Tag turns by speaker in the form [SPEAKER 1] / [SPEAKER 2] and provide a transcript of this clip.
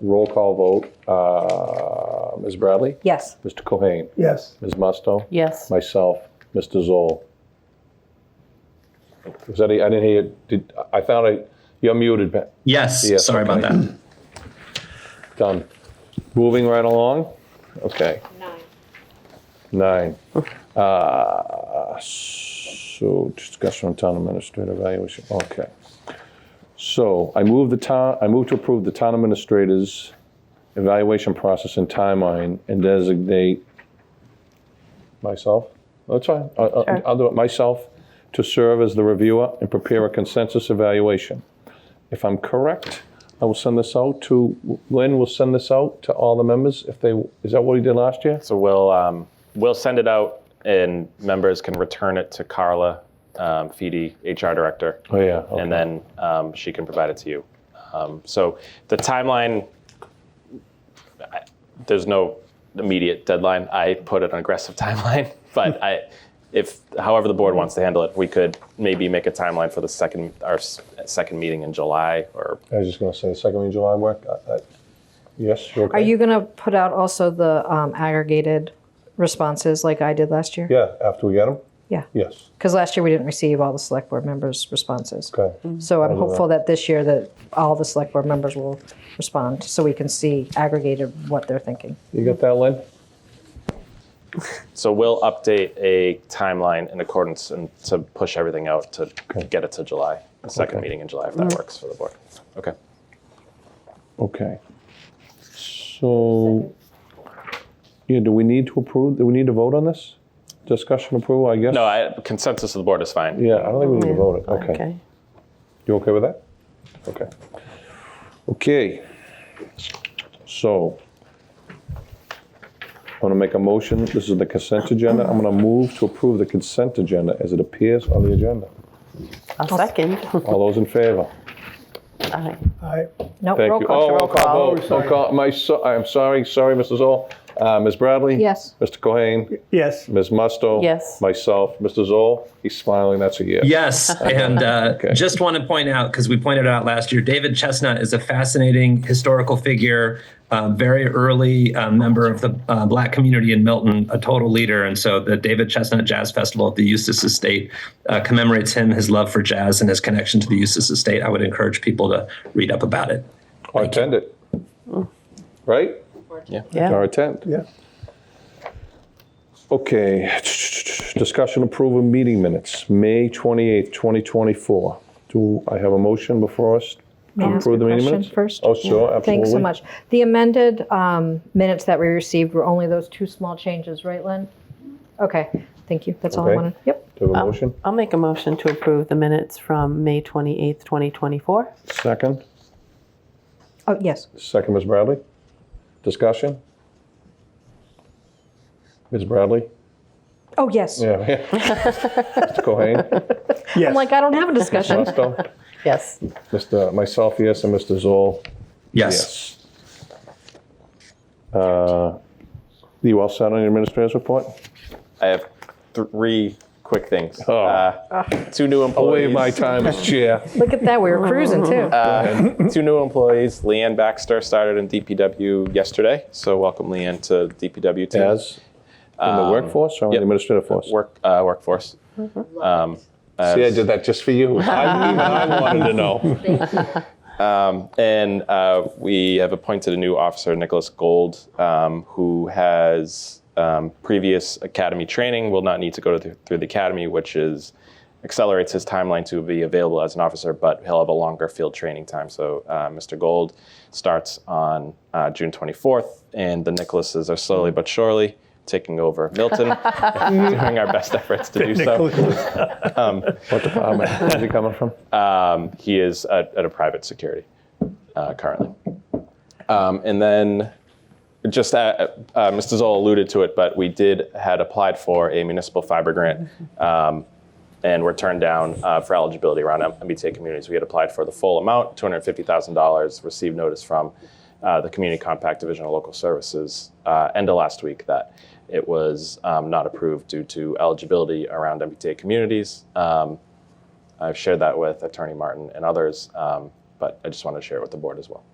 [SPEAKER 1] Roll call vote, uh, Ms. Bradley,
[SPEAKER 2] Yes.
[SPEAKER 1] Mr. Cohen,
[SPEAKER 3] Yes.
[SPEAKER 1] Ms. Musto,
[SPEAKER 2] Yes.
[SPEAKER 1] myself, Mr. Zoll. Was that, a- I didn't hear, did, I found it, you're muted, Pat.
[SPEAKER 4] Yes,
[SPEAKER 1] Yeah,
[SPEAKER 4] sorry about
[SPEAKER 1] okay.
[SPEAKER 4] that.
[SPEAKER 1] Done. Moving right along? Okay,
[SPEAKER 5] Nine.
[SPEAKER 1] nine. Uh, So discussion on town administrator evaluation, okay. So I move the town, I move to approve the town administrator's evaluation process and timeline and designate myself, that's fine, I- I- I'll do it myself, to serve as the reviewer and prepare a consensus evaluation. If I'm correct, I will send this out to, Lynn will send this out to all the members if they, is that what he did last year?
[SPEAKER 6] So we'll um, we'll send it out, and members can return it to Carla, um, Feedy, HR director,
[SPEAKER 1] Oh, yeah. okay.
[SPEAKER 6] and then um, she can provide it to you. Um, so the timeline, I- there's no immediate deadline. I put an aggressive timeline, but I, if however the board wants to handle it, we could maybe make a timeline for the second our s- second meeting in July or
[SPEAKER 1] I was just going to say, the second week of July work, I- I- yes, you're okay?
[SPEAKER 2] Are you going to put out also the um, aggregated responses like I did last year?
[SPEAKER 1] Yeah, after we get them?
[SPEAKER 2] Yeah.
[SPEAKER 1] Yes,
[SPEAKER 2] Because last year we didn't receive all the select board members' responses.
[SPEAKER 1] okay.
[SPEAKER 2] So I'm
[SPEAKER 1] do that.
[SPEAKER 2] hopeful that this year that all the select board members will respond so we can see aggregated what they're thinking.
[SPEAKER 1] You got that, Lynn?
[SPEAKER 6] So we'll update a timeline in accordance and to push everything out to get it to July, the second
[SPEAKER 1] Okay.
[SPEAKER 6] meeting in July, if that works for the board. Okay.
[SPEAKER 1] Okay. So, yeah, do we need to approve, do we need to vote on this? Discussion approval, I guess?
[SPEAKER 6] No, I, consensus of the board is fine.
[SPEAKER 1] Yeah, I don't think we need to vote it,
[SPEAKER 2] Mm-hmm.
[SPEAKER 1] okay. You okay with that? Okay. Okay. So I'm going to make a motion. This is the consent agenda. I'm going to move to approve the consent agenda as it appears on the agenda.
[SPEAKER 7] A second.
[SPEAKER 1] All those in favor?
[SPEAKER 7] Aye.
[SPEAKER 3] I,
[SPEAKER 2] No,
[SPEAKER 1] Thank
[SPEAKER 2] roll
[SPEAKER 1] you.
[SPEAKER 2] call.
[SPEAKER 1] Oh, roll call vote.
[SPEAKER 3] Oh,
[SPEAKER 1] Roll call. My, so- I'm sorry, sorry, Mrs. Zoll. Uh, Ms. Bradley?
[SPEAKER 2] Yes.
[SPEAKER 1] Mr. Cohen?
[SPEAKER 3] yes.
[SPEAKER 1] Ms. Musto?
[SPEAKER 7] Yes.
[SPEAKER 1] Myself, Mr. Zoll? He's smiling, that's a yes.
[SPEAKER 4] Yes, and uh,
[SPEAKER 1] Okay.
[SPEAKER 4] just want to point out because we pointed it out last year, David Chestnut is a fascinating historical figure, uh, very early uh, member of the uh, Black community in Milton, a total leader. And so the David Chestnut Jazz Festival at the Eustis Estate uh, commemorates him, his love for jazz, and his connection to the Eustis Estate. I would encourage people to read up about it.
[SPEAKER 1] Or attend it. Right? Or
[SPEAKER 7] Yeah.
[SPEAKER 1] attend.
[SPEAKER 3] Yeah.
[SPEAKER 1] Okay, discussion approval of meeting minutes, May 28th, 2024. Do I have a motion before us?
[SPEAKER 2] May I ask
[SPEAKER 1] Approve
[SPEAKER 2] a
[SPEAKER 1] the meeting
[SPEAKER 2] question
[SPEAKER 1] minutes?
[SPEAKER 2] first?
[SPEAKER 1] Oh, sure, absolutely.
[SPEAKER 2] Thanks so much. The amended um, minutes that we received were only those two small changes, right, Lynn? Okay, thank you. That's all I
[SPEAKER 1] Okay.
[SPEAKER 2] wanted. Yep.
[SPEAKER 1] Do you have a motion?
[SPEAKER 7] I'll make a motion to approve the minutes from May 28th, 2024.
[SPEAKER 1] Second,
[SPEAKER 2] Oh, yes.
[SPEAKER 1] second, Ms. Bradley. Discussion? Ms. Bradley?
[SPEAKER 2] Oh, yes.
[SPEAKER 1] Yeah. Mr. Cohen?
[SPEAKER 3] Yes.
[SPEAKER 2] I'm like, I don't have a discussion.
[SPEAKER 1] Musto?
[SPEAKER 7] Yes.
[SPEAKER 1] Mr. Myself, yes, and Mr. Zoll?
[SPEAKER 4] Yes.
[SPEAKER 1] Yes. Uh, You all set on your administrator's report?
[SPEAKER 6] I have three quick things.
[SPEAKER 1] Oh.
[SPEAKER 6] Uh, Two new
[SPEAKER 1] Away Oh, my
[SPEAKER 6] employees, Uh,
[SPEAKER 1] time as chair.
[SPEAKER 2] Look at that. We were cruising too.
[SPEAKER 6] two new employees. Leanne Baxter started in DPW yesterday, so welcome Leanne to DPW team.
[SPEAKER 1] As in the workforce or in the
[SPEAKER 6] yep.
[SPEAKER 1] administrative force?
[SPEAKER 6] Work, uh, workforce. Um, as-
[SPEAKER 1] Mm-hmm. See, I did that just for you. I, even I wanted to know.
[SPEAKER 6] And uh, we have appointed a new officer, Nicholas Gold, um, who has um, previous academy training, will not need to go to the, through the academy, which is accelerates his timeline to be available as an officer, but he'll have a longer field training time. So uh, Mr. Gold starts on uh, June 24th, and the Nicholases are slowly but surely taking over Milton, doing our best efforts to do so.
[SPEAKER 1] What department is he coming from?
[SPEAKER 6] He is at, at a private security uh, currently. Um, and then, just uh, uh, Mr. Zoll alluded to it, but we did had applied for a municipal fiber grant, um, and were turned down uh, for eligibility around M- MBTA communities. We had applied for the full amount, two hundred fifty thousand dollars. Received notice from uh, the Community Compact Division of Local Services uh, end of last week that it was um, not approved due to eligibility around MBTA communities. Um, I've shared that with Attorney Martin and others, um, but I just wanted to share it with the board as well.